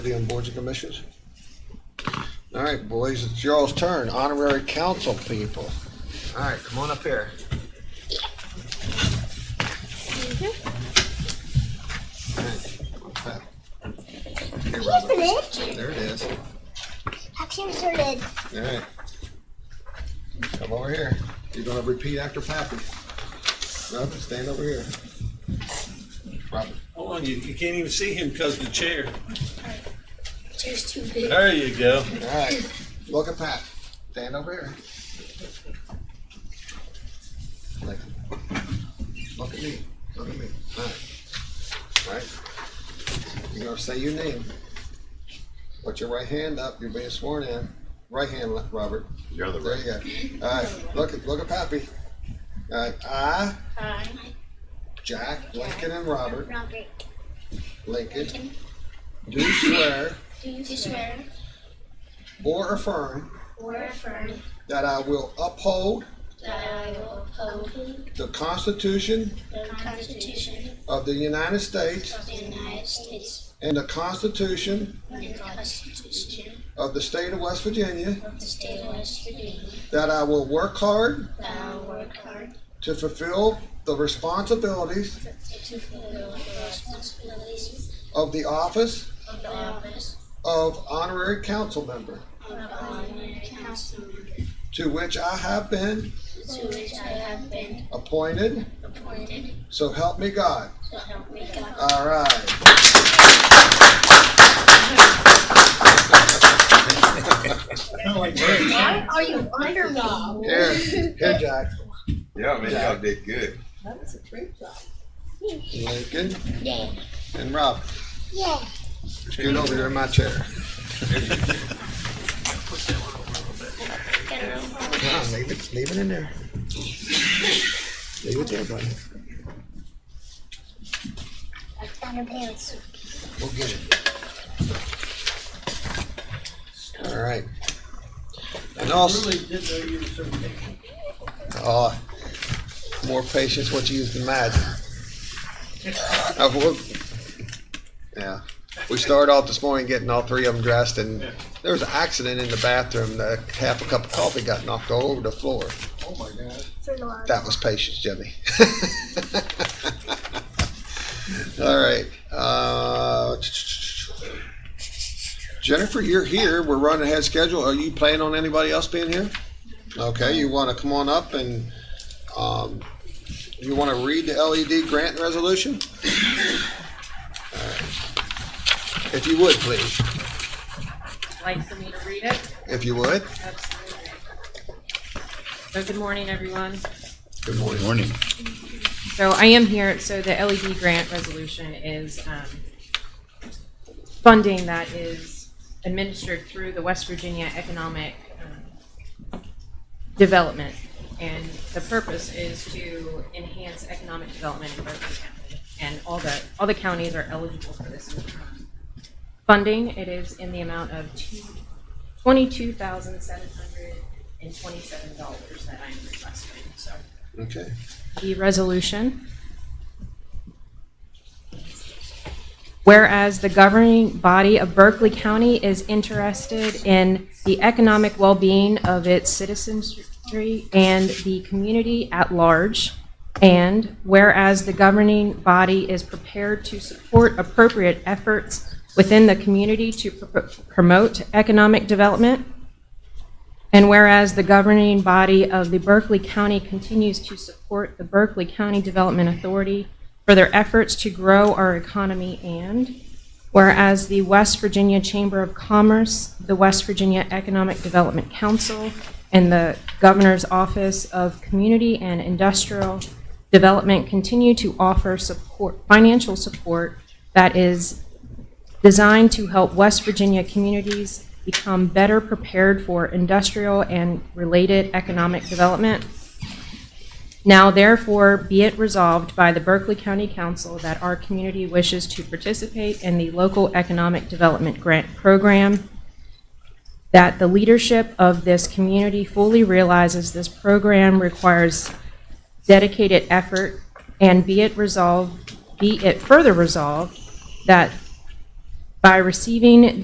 Committee on boards and commissions? All right, boys, it's y'all's turn, honorary council people. All right, come on up here. All right, what's that? Here, Here's the Robert. lid. There it is. All Here's the lid. right. Come over here. You're gonna repeat after Pappy. Robert, stand over here. Robert, Hold on, you, you can't even see him because the chair. Chair's too big. There you go. all right, look at Pat. Stand over here. Like, Look at me, look at me. All right. All right. You're gonna say your name. Put your right hand up, you're being sworn in. Right hand, Le- Robert. You're the There right. you go. All right, look at, look at Pappy. All right, I, Hi. Jack, Lincoln, and Robert, Robert, Lincoln, do swear do you swear or affirm or affirm that I will uphold that I will uphold the Constitution the Constitution of the United States of the United States and the Constitution and the Constitution of the State of West Virginia, of the State of West Virginia, that I will work hard that I will work hard to fulfill the responsibilities to fulfill the responsibilities of the office of the office of honorary council member, of honorary council member, to which I have been to which I have been appointed, appointed, so help me God. so help me God. All right. Why are you underdog? Here, here, Jack. Yeah, man, y'all did good. That was a true job. Lincoln Yeah. and Rob. Yeah. Scoot over there in my chair. Nah, leave it, leave it in there. Leave it there, buddy. Underpants. We'll get it. All right. And also, uh, more patience, what you used to imagine. Uh, we'll- Yeah, we started off this morning getting all three of them dressed and there was an accident in the bathroom. The half a cup of coffee got knocked all over the floor. Oh my God. For Laura. That was patience, Jimmy. All right. Uh, Jennifer, you're here. We're running ahead of schedule. Are you planning on anybody else being here? Okay, you want to come on up and um, you want to read the LED grant resolution? All right. If you would, please. like for me to read it? If you would. Absolutely. So good morning, everyone. Good morning. Morning. So I am here, so the LED grant resolution is um, funding that is administered through the West Virginia Economic um, Development. And the purpose is to enhance economic development in Berkeley County. And all the, all the counties are eligible for this um, funding. It is in the amount of two- $22,727 that I'm requesting, so Okay. the resolution. Whereas the governing body of Berkeley County is interested in the economic well-being of its citizenry and the community at large. And whereas the governing body is prepared to support appropriate efforts within the community to pr- promote economic development. And whereas the governing body of the Berkeley County continues to support the Berkeley County Development Authority for their efforts to grow our economy and whereas the West Virginia Chamber of Commerce, the West Virginia Economic Development Council, and the Governor's Office of Community and Industrial Development continue to offer support, financial support that is designed to help West Virginia communities become better prepared for industrial and related economic development. Now therefore be it resolved by the Berkeley County Council that our community wishes to participate in the local economic development grant program, that the leadership of this community fully realizes this program requires dedicated effort, and be it resolved, be it further resolved that by receiving